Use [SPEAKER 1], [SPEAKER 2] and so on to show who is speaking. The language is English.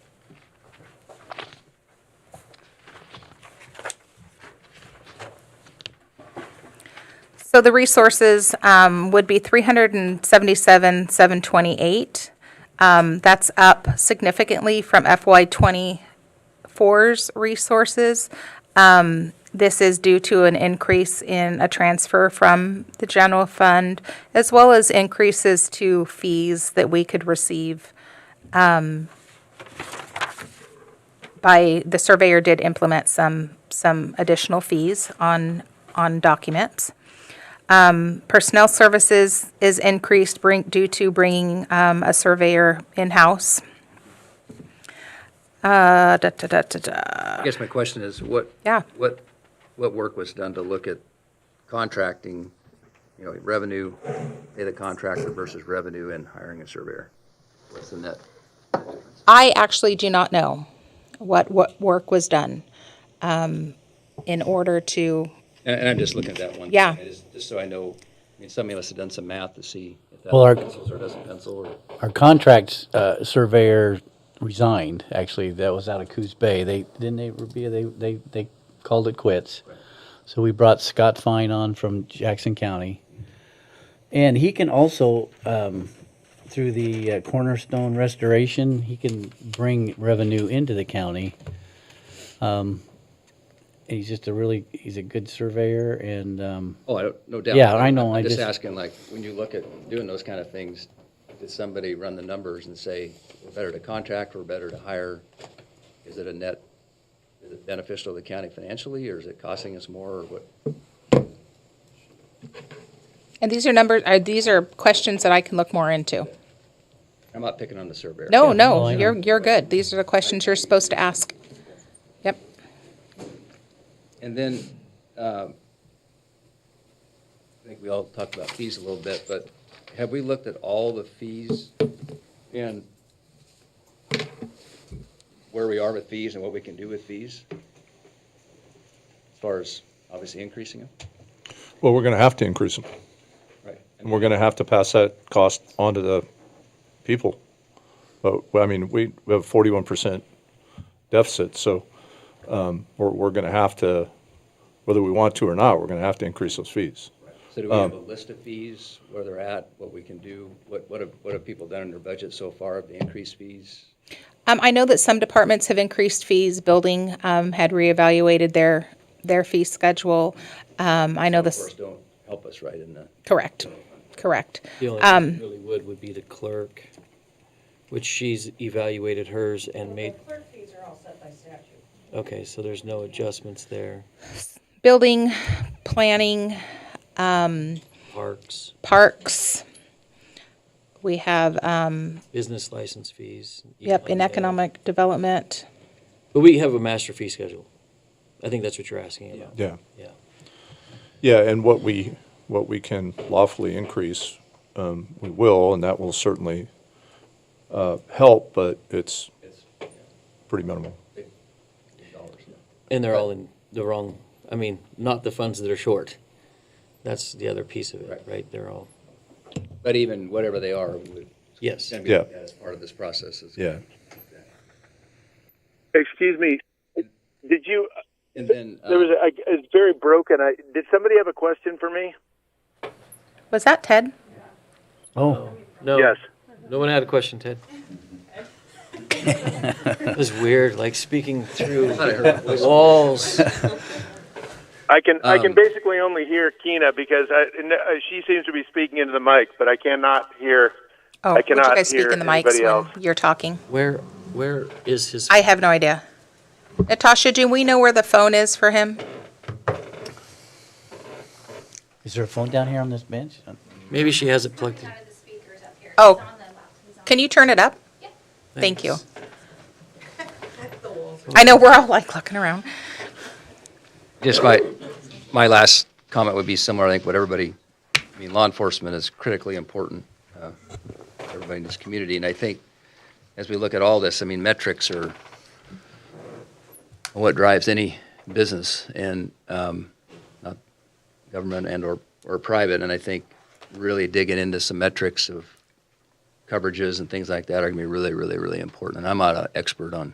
[SPEAKER 1] So the resources um, would be 377,728. Um, That's up significantly from FY '24's resources. Um, This is due to an increase in a transfer from the general fund, as well as increases to fees that we could receive um, by, the surveyor did implement some, some additional fees on, on documents. Um, Personnel services is increased bring, due to bringing um, a surveyor in-house. Uh, da, da, da, da, da.
[SPEAKER 2] I guess my question is, what?
[SPEAKER 1] Yeah.
[SPEAKER 2] What, what work was done to look at contracting, you know, revenue, pay the contractor versus revenue and hiring a surveyor? What's the net?
[SPEAKER 1] I actually do not know what, what work was done um, in order to,
[SPEAKER 2] And, and I'm just looking at that one.
[SPEAKER 1] Yeah.
[SPEAKER 2] I Just just so I know, I mean, somebody must have done some math to see if that
[SPEAKER 3] Well, our-
[SPEAKER 2] pencils or doesn't pencil or.
[SPEAKER 3] Our contract uh, surveyor resigned, actually, that was out of Coos Bay. They, didn't they, Rubia, they, they, they called it quits. So we brought Scott Fine on from Jackson County. And he can also, um, through the uh, Cornerstone Restoration, he can bring revenue into the county. Um, and He's just a really, he's a good surveyor and, um,
[SPEAKER 2] Oh, I don't, no doubt.
[SPEAKER 3] Yeah, I know, I
[SPEAKER 2] I'm just
[SPEAKER 3] just-
[SPEAKER 2] asking, like, when you look at doing those kind of things, did somebody run the numbers and say, we're better to contract, we're better to hire? Is it a net, is it beneficial to the county financially, or is it costing us more, or what?
[SPEAKER 1] and these are numbers, are, these are questions that I can look more into.
[SPEAKER 2] I'm not picking on the surveyor.
[SPEAKER 1] No,
[SPEAKER 3] well,
[SPEAKER 1] no,
[SPEAKER 3] I know.
[SPEAKER 1] you're, you're good. These are the questions you're supposed to ask. Yep.
[SPEAKER 2] And then, um, I think we all talked about fees a little bit, but have we looked at all the fees and where we are with fees and what we can do with fees? As far as obviously increasing them,
[SPEAKER 4] Well, we're going to have to increase them,
[SPEAKER 2] right?
[SPEAKER 4] and we're going to have to pass that cost on to the people. But, well, I mean, we we have forty-one percent deficit, so um, we're, we're going to have to, whether we want to or not, we're going to have to increase those fees.
[SPEAKER 2] So do we
[SPEAKER 4] Um,
[SPEAKER 2] have a list of fees, where they're at, what we can do? What, what have, what have people done in their budget so far of the increased fees?
[SPEAKER 1] Um, I know that some departments have increased fees. Building, um, had reevaluated their, their fee schedule. Um, I know
[SPEAKER 2] Of course,
[SPEAKER 1] this,
[SPEAKER 2] don't help us, right, in the,
[SPEAKER 1] correct, correct.
[SPEAKER 5] The only
[SPEAKER 1] Um,
[SPEAKER 5] one that really would would be the clerk, which she's evaluated hers and made,
[SPEAKER 6] The clerk fees are all set by statute.
[SPEAKER 5] okay, so there's no adjustments there.
[SPEAKER 1] Building, planning,
[SPEAKER 5] Parks,
[SPEAKER 1] parks. We have, um,
[SPEAKER 5] business license fees.
[SPEAKER 1] yep, in
[SPEAKER 5] economic-
[SPEAKER 1] economic development.
[SPEAKER 5] But we have a master fee schedule. I think that's what you're asking about.
[SPEAKER 4] Yeah.
[SPEAKER 5] Yeah.
[SPEAKER 4] Yeah, and what we, what we can lawfully increase, um, we will, and that will certainly uh, help, but it's
[SPEAKER 2] it's
[SPEAKER 4] pretty minimal.
[SPEAKER 2] dollars, yeah.
[SPEAKER 5] And they're all in the wrong, I mean, not the funds that are short. That's the other piece of it,
[SPEAKER 2] Right.
[SPEAKER 5] right? They're all,
[SPEAKER 2] But even whatever they are, would.
[SPEAKER 5] Yes.
[SPEAKER 2] Can be
[SPEAKER 4] Yeah.
[SPEAKER 2] looked at as part of this process. It's-
[SPEAKER 4] Yeah.
[SPEAKER 7] Excuse me. Did you?
[SPEAKER 2] And then, uh,
[SPEAKER 7] There was. A, I, it's very broken. I, did somebody have a question for me?
[SPEAKER 1] Was that Ted?
[SPEAKER 3] oh,
[SPEAKER 5] no.
[SPEAKER 7] Yes.
[SPEAKER 5] No one had a question, Ted. It was weird, like speaking through
[SPEAKER 2] I heard a voice.
[SPEAKER 5] walls.
[SPEAKER 7] I can. I can
[SPEAKER 2] Um,
[SPEAKER 7] basically only hear Kina because I, and, uh, she seems to be speaking into the mic, but I cannot hear.
[SPEAKER 1] Oh,
[SPEAKER 7] I
[SPEAKER 1] would you
[SPEAKER 7] cannot
[SPEAKER 1] guys speak
[SPEAKER 7] hear
[SPEAKER 1] in the mics
[SPEAKER 7] anybody
[SPEAKER 1] when
[SPEAKER 7] else.
[SPEAKER 1] You're talking.
[SPEAKER 5] Where, where is his?
[SPEAKER 1] I have no idea. Natasha, do we know where the phone is for him?
[SPEAKER 3] is there a phone down here on this bench?
[SPEAKER 5] Maybe she has it plugged in.
[SPEAKER 8] out of the speakers up here.
[SPEAKER 1] Oh.
[SPEAKER 8] It's on the laptop. It's on
[SPEAKER 1] Can you turn it up? Thank you.
[SPEAKER 5] Thanks.
[SPEAKER 1] I know we're all like looking around.
[SPEAKER 2] just my, my last comment would be similar, I think, what everybody, I mean, law enforcement is critically important, uh, to everybody in this community, and I think, as we look at all this, I mean, metrics are what drives any business, and, um, not government and or, or private, and I think really digging into some metrics of coverages and things like that are gonna be really, really, really important, and I'm not an expert on